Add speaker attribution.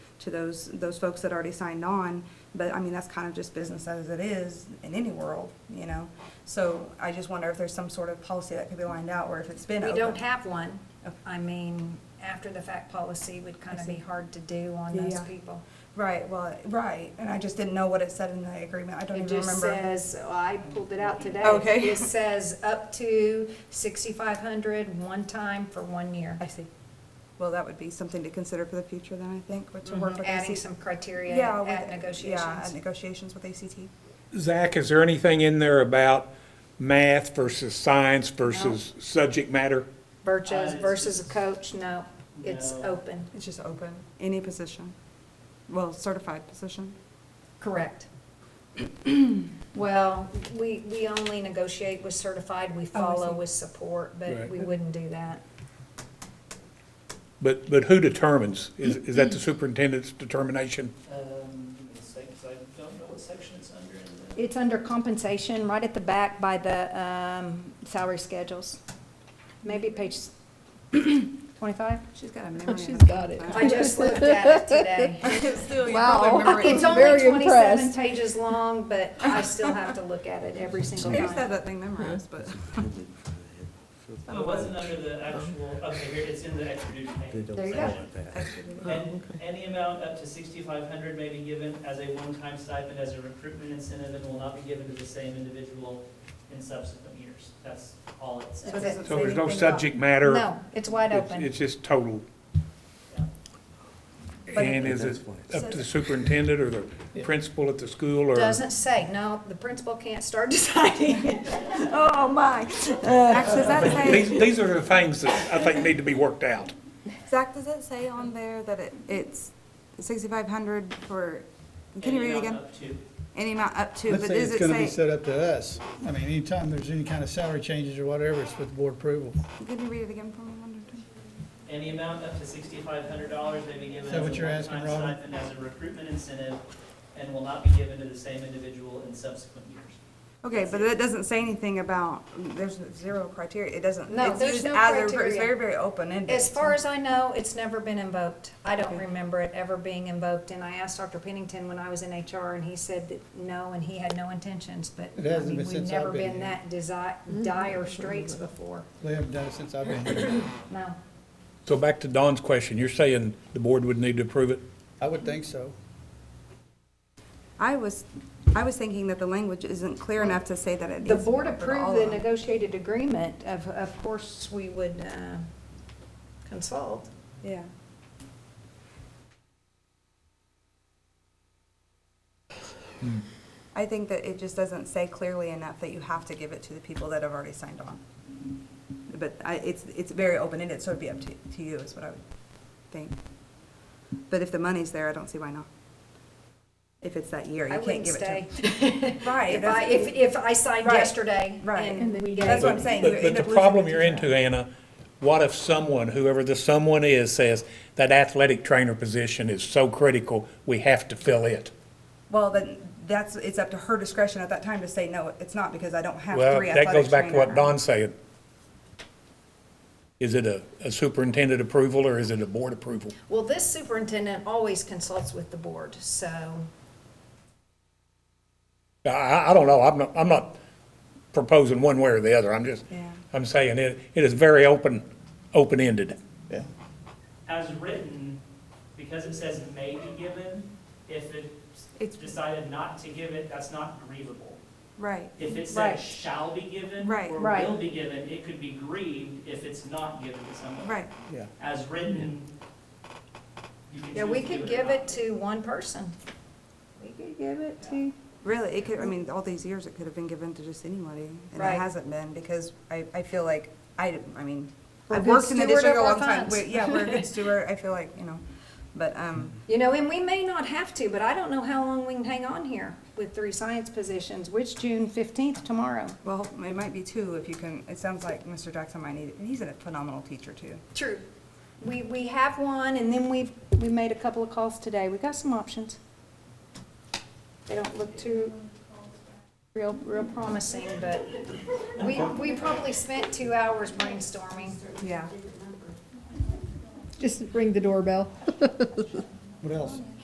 Speaker 1: to those, those folks that already signed on. But I mean, that's kind of just business as it is in any world, you know? So I just wonder if there's some sort of policy that could be lined out, or if it's been
Speaker 2: We
Speaker 1: open.
Speaker 2: don't have one.
Speaker 1: Okay.
Speaker 2: I mean, after the fact policy would kind
Speaker 1: I
Speaker 2: of
Speaker 1: see.
Speaker 2: be hard to do on
Speaker 1: Yeah,
Speaker 2: those
Speaker 1: yeah.
Speaker 2: people.
Speaker 1: Right, well, right, and I just didn't know what it said in the agreement, I don't
Speaker 2: It
Speaker 1: even
Speaker 2: just
Speaker 1: remember.
Speaker 2: says, oh, I pulled it out today.
Speaker 1: Okay.
Speaker 2: It says up to sixty-five hundred, one time for one year.
Speaker 1: I see. Well, that would be something to consider for the future then, I think,
Speaker 2: Mhm.
Speaker 1: but to work with
Speaker 2: Mm-hmm. Adding
Speaker 1: ACT.
Speaker 2: some criteria
Speaker 1: Yeah, with-
Speaker 2: at
Speaker 1: Yeah, at
Speaker 2: negotiations.
Speaker 1: negotiations with ACT.
Speaker 3: Zach, is there anything in there about math versus science versus subject matter?
Speaker 2: Virtues
Speaker 4: Uh,
Speaker 2: versus a coach, no, it's
Speaker 4: No.
Speaker 2: open.
Speaker 1: It's just open, any position, well, certified position.
Speaker 2: Correct. Well, we, we only negotiate with certified, we follow
Speaker 1: Oh, see.
Speaker 2: with support, but
Speaker 3: Right.
Speaker 2: we wouldn't do that.
Speaker 3: But, but who determines? Is, is that the
Speaker 2: Mm-hmm.
Speaker 3: superintendent's determination?
Speaker 4: Um, give me a sec, 'cause I don't know what section it's under in the.
Speaker 2: It's under compensation, right at the back by the um, salary schedules. Maybe page 25?
Speaker 1: She's got a memory.
Speaker 5: Oh, she's
Speaker 1: of a
Speaker 5: got it.
Speaker 1: vampire.
Speaker 2: I just looked at it today.
Speaker 1: Still, you
Speaker 5: Wow.
Speaker 1: probably remember it.
Speaker 2: It's only
Speaker 5: Very
Speaker 2: 27
Speaker 5: impressed.
Speaker 2: pages long, but I still have to look at it every single
Speaker 1: I used to have
Speaker 2: time.
Speaker 1: that thing memorized, but.
Speaker 4: Oh, It wasn't under the actual, okay, here, it's in the extra duty pay.
Speaker 2: There you go.
Speaker 4: And any amount up to sixty-five hundred may be given as a one-time stipend as a recruitment incentive and will not be given to the same individual in subsequent years. That's all it
Speaker 1: It
Speaker 4: says.
Speaker 1: doesn't
Speaker 3: So
Speaker 1: say
Speaker 3: there's
Speaker 1: anything
Speaker 3: no
Speaker 1: about-
Speaker 3: subject matter?
Speaker 2: No, it's wide
Speaker 3: It's-
Speaker 2: open.
Speaker 3: It's just total.
Speaker 4: Yeah.
Speaker 3: And is it up to the superintendent or the principal at the school or?
Speaker 2: Doesn't say, no, the principal can't start deciding.
Speaker 1: Oh, my. Zach, does that
Speaker 3: These,
Speaker 1: say,
Speaker 3: these are the things that I think need to be worked out.
Speaker 1: Zach, does it say on there that it, it's sixty-five hundred for, can you
Speaker 4: Any
Speaker 1: read it again?
Speaker 4: amount up to-
Speaker 1: Any amount up to,
Speaker 6: Let's
Speaker 1: but
Speaker 6: say
Speaker 1: does
Speaker 6: it's gonna be
Speaker 1: it say,
Speaker 6: set up to us. I mean, anytime there's any kind of salary changes or whatever, it's with board approval.
Speaker 1: can you read it again for me one more time?
Speaker 4: Any amount up to sixty-five hundred dollars may be given
Speaker 6: Is
Speaker 4: as
Speaker 6: that
Speaker 4: a
Speaker 6: what you're
Speaker 4: one-time
Speaker 6: asking, Robert?
Speaker 4: stipend as a recruitment incentive and will not be given to the same individual in subsequent years.
Speaker 1: Okay, but it doesn't say anything about, there's zero criteria, it doesn't.
Speaker 2: No,
Speaker 1: it's
Speaker 2: there's
Speaker 1: used
Speaker 2: no
Speaker 1: as a- It's
Speaker 2: criteria.
Speaker 1: very, very open-ended.
Speaker 2: As far as I know, it's never been invoked. I don't
Speaker 1: Okay.
Speaker 2: remember it ever being invoked, and I asked Dr. Pennington when I was in HR, and he said that no, and he had no intentions, but.
Speaker 6: It
Speaker 2: I
Speaker 6: hasn't
Speaker 2: mean,
Speaker 6: been since
Speaker 2: We've never
Speaker 6: I've been
Speaker 2: been Mm-hmm.
Speaker 6: here.
Speaker 2: that desi- dire straits before,
Speaker 6: They haven't done it since I've been here.
Speaker 2: no.
Speaker 3: So back to Don's question, you're saying the board would need to approve it?
Speaker 6: I would think so.
Speaker 1: I was, I was thinking that the language isn't clear enough to say that it needs
Speaker 2: The
Speaker 1: to be
Speaker 2: board
Speaker 1: open to
Speaker 2: approved
Speaker 1: all
Speaker 2: the
Speaker 1: of them.
Speaker 2: negotiated agreement, of, of course, we would uh, consult.
Speaker 1: Yeah. I think that it just doesn't say clearly enough that you have to give it to the people that have already signed on. But I, it's, it's very open-ended, so it'd be up to, to you is what I would think. But if the money's there, I don't see why not. If it's that year,
Speaker 2: I
Speaker 1: you can't
Speaker 2: wouldn't
Speaker 1: give it to
Speaker 2: stay.
Speaker 1: them. Right,
Speaker 2: If I,
Speaker 1: that's-
Speaker 2: if, if I signed
Speaker 1: Right,
Speaker 2: yesterday
Speaker 1: right.
Speaker 2: and we
Speaker 1: That's
Speaker 2: gave
Speaker 1: what I'm saying.
Speaker 3: But-
Speaker 1: you
Speaker 3: But
Speaker 1: end
Speaker 3: the
Speaker 1: up losing
Speaker 3: problem
Speaker 1: the
Speaker 3: you're
Speaker 1: teacher.
Speaker 3: into, Anna, what if someone, whoever the someone is, says that athletic trainer position is so critical, we have to fill it?
Speaker 1: Well, then, that's, it's up to her discretion at that time to say, no, it's not, because I don't have
Speaker 3: Well,
Speaker 1: three athletic
Speaker 3: that goes back to what
Speaker 1: trainers."
Speaker 3: Don's saying. Is it a a superintendent approval or is it a board approval?
Speaker 2: Well, this superintendent always consults with the board, so
Speaker 3: I- I, I don't know, I'm not, I'm not proposing one way or the other, I'm just,
Speaker 1: Yeah.
Speaker 3: I'm saying it, it is very open, open-ended.
Speaker 6: Yeah.
Speaker 4: as written, because it says may be given, if
Speaker 1: It's-
Speaker 4: it's decided not to give it, that's not grievable.
Speaker 1: Right,
Speaker 4: If it
Speaker 2: Right.
Speaker 4: says shall be given
Speaker 1: Right.
Speaker 4: or
Speaker 2: Right.
Speaker 4: will be given, it could be grieved if it's not given to someone.
Speaker 1: right.
Speaker 6: Yeah.
Speaker 4: As written, you can
Speaker 2: Yeah, we
Speaker 4: choose to
Speaker 2: could
Speaker 4: or
Speaker 2: give
Speaker 4: not.
Speaker 2: it to one person. We could give it to.
Speaker 1: Really, it could, I mean, all these years, it could have been given to just anybody, and
Speaker 2: Right.
Speaker 1: it hasn't been, because I, I feel like, I, I mean,
Speaker 2: We're
Speaker 1: I've
Speaker 2: good
Speaker 1: worked in the
Speaker 2: steward
Speaker 1: district a
Speaker 2: of our
Speaker 1: long time.
Speaker 2: funds.
Speaker 1: We- Yeah, we're a good steward, I feel like, you know, but, um,
Speaker 2: You know, and we may not have to, but I don't know how long we can hang on here with three science positions, which June fifteenth tomorrow.
Speaker 1: well, it might be two, if you can, it sounds like Mr. Jackson might need, it. he's a phenomenal teacher, too.
Speaker 2: True. We, we have one, and then we've, we made a couple of calls today. We got some options. They don't look too real, real promising, but we, we probably spent two hours brainstorming.
Speaker 1: Yeah.
Speaker 5: Just ring the doorbell.
Speaker 6: What else?